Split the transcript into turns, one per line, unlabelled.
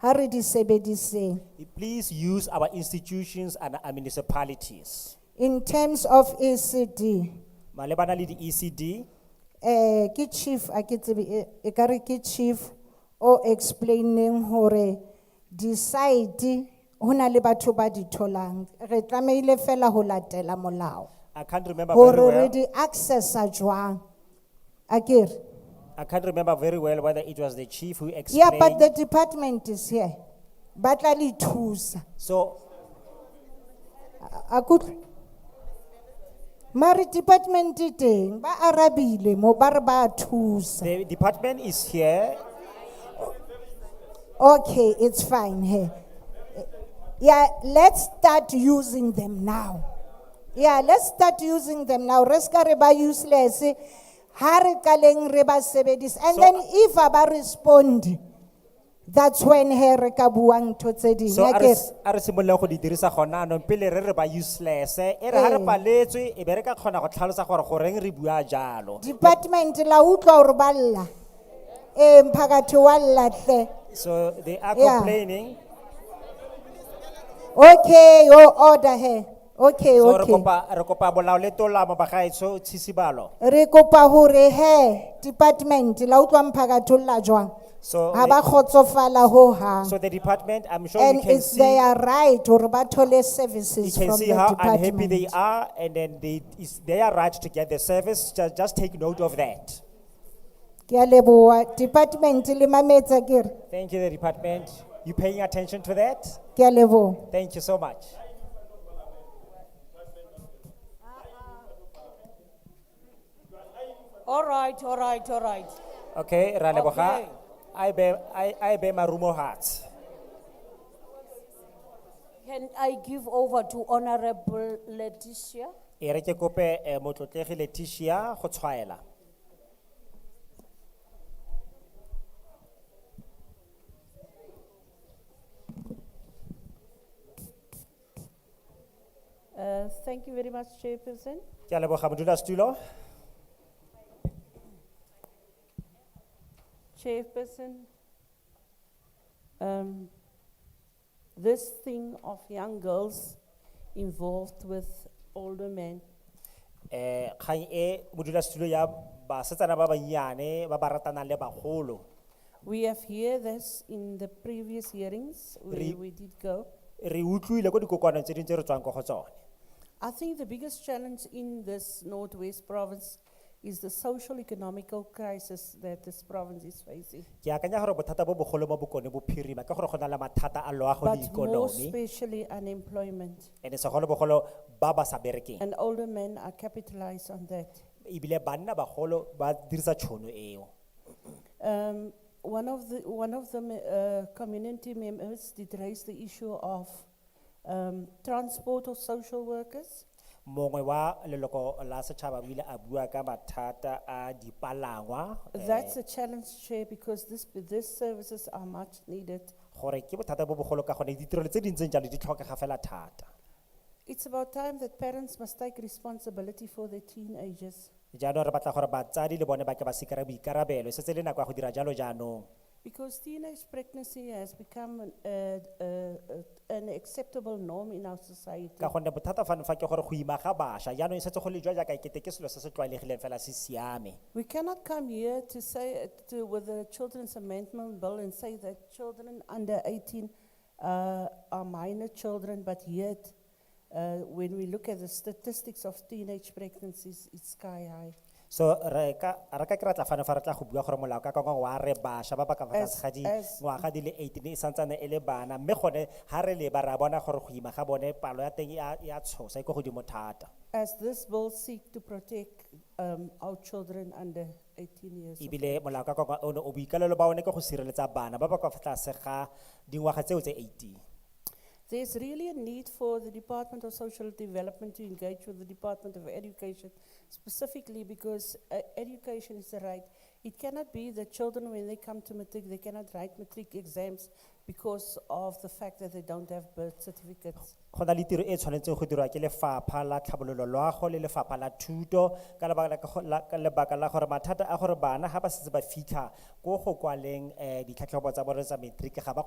ha re di sebediseng
Please use our institutions and our municipalities.
in terms of E ECD
Malebana le di ECD,
eh ke chief a ke tsebe e- ekare ke chief o explaining hore decide hona le batho ba di tholang re tlameile fela ho latela molao
I can't remember very
hore re
well.
di accessa jwang akere
I can't remember very well whether it was the chief who
yeah but the
explained.
department is here ba tla le thusa
So
a kutlwe mare department e teng ba arabile mo ba re ba thusa
the department is here.
okay it's fine here yeah let's start using them now yeah let's start using them now re ska re ba useless ha re kaleng re ba sebedisa and
So-
then if a ba respond that's when he re ka buang ntho tse ding
So
akere?
are simoleng go di dirisa gona no pele re re ba useless eh, e re ha re
Ee.
paletswe e be re ka kgona go tlhalosa gore goreng re bua jalo.
department la utlwa hore ba lla ee mphakathi wa lla hle
So they are
Yeah.
complaining.
okay o order he okay
So re
okay
kopa re kopa bolao le tolamo bagaetsho Tshisibalo.
re kopa hore he department la utlwa mphakathi o lla jwang
So
ha
le-
ba kgotsofala ho hang
So the department, I'm sure you
and
can
it's
see,
their right hore ba thole
you
services
can
from
see
the
how unhappy they
department
are and then they, it's their right to get the service, just, just take note of that.
ke a leboha department le mametsa ke re
Thank you, the department. You paying attention to that?
ke a leboha
Thank you so much.
All right, all right, all right.
Okay,
Okay.
Raleboha, I bear, I, I bear my rumor heart.
Can I give over to Honorable Letitia?
Ereke kope eh, motlotlegi Letitia go tshwaela.
Uh, Thank you very much, Chairperson.
Ke a leboga modulasetulo.
Chairperson, um, this thing of young girls involved with older men,
Eh, kgang e modulasetulo ya basetsana ba bannyane ba ba ratanang le bagolo.
we have heard this in the previous hearings
Re-
where we did go.
Re utlwile ko dikokoanong tse dingwe tse re tswang ko go tsone.
I think the biggest challenge in this Northwest province is the social economical crisis that this province is facing.
ke akanya gore bothata bo bogolo mo bokone bophirima ke gore go na le mathata a loago le
But more
ikonomi
especially unemployment,
and segolobogolo ba ba sa berekeng
and older men are capitalized on that.
ebile banna bagolo ba dirisa tšhono eo
Um, one of the, one of the me- uh, community members did raise the issue of um, transport of social workers.
mongwe wa leloko la setšhaba o ile a bua ka mathata a dipalangwa eh,
That's a challenge, Chair, because this, these services are much needed.
gore ke bothata bo bogolo ka gone ditirelo tse dintseng jalo di tlhokega fela thata
It's about time that parents must take responsibility for their teenagers
jaanong re batla gore batsadi le bone ba ke ba sekry boikarabelo e setse le nako ya go dira jalo jaanong
because teenage pregnancy has become an, uh, uh, uh, an acceptable norm in our society.
ka gonne bothata fane fa ke gore go ima ga bašwa jaanong e setse go le jwa jaaka ekete ke selo se se tlwaelegileng fela se siame
We cannot come here to say, uh, to, with the Children's Amendment Bill and say that children under eighteen, uh, are minor children, but yet, uh, when we look at the statistics of teenage pregnancies, it's sky high.
so re ka re ka ke ra tla fane fa re tla go bua gore molao ka kangwe wa re bašwa ba ba ka fa tlase
As-
ga di-
as-
ngwaga di le eighteen e santsane e le bana mme gone ga re leba re a bona gore go ima ga bone palo ya teng e a- e a tshosa e ko godimo thata
As this bill seek to protect, um, our children under eighteen years. of-
ebile molao ka kangwe one o boikalelo ba one ke go sireletsa bana ba ba ka fa tlase ga dingwaga tseo tse eighteen
There's really a need for the Department of Social Development to engage with the Department of Education specifically because uh, education is a right. It cannot be that children, when they come to matric, they cannot write matric exams because of the fact that they don't have birth certificates.
go na le tiro e tshwanetseng go dirwa ke lefapha la tlhabololo loago le lefapha la thuto ka lebaka la- ka go- la- ka lebaka la gore mathata a gore bana ga ba setse ba fitlha ko go kwaleng um ditlhatlhobo tsa bone tsa matric ga ba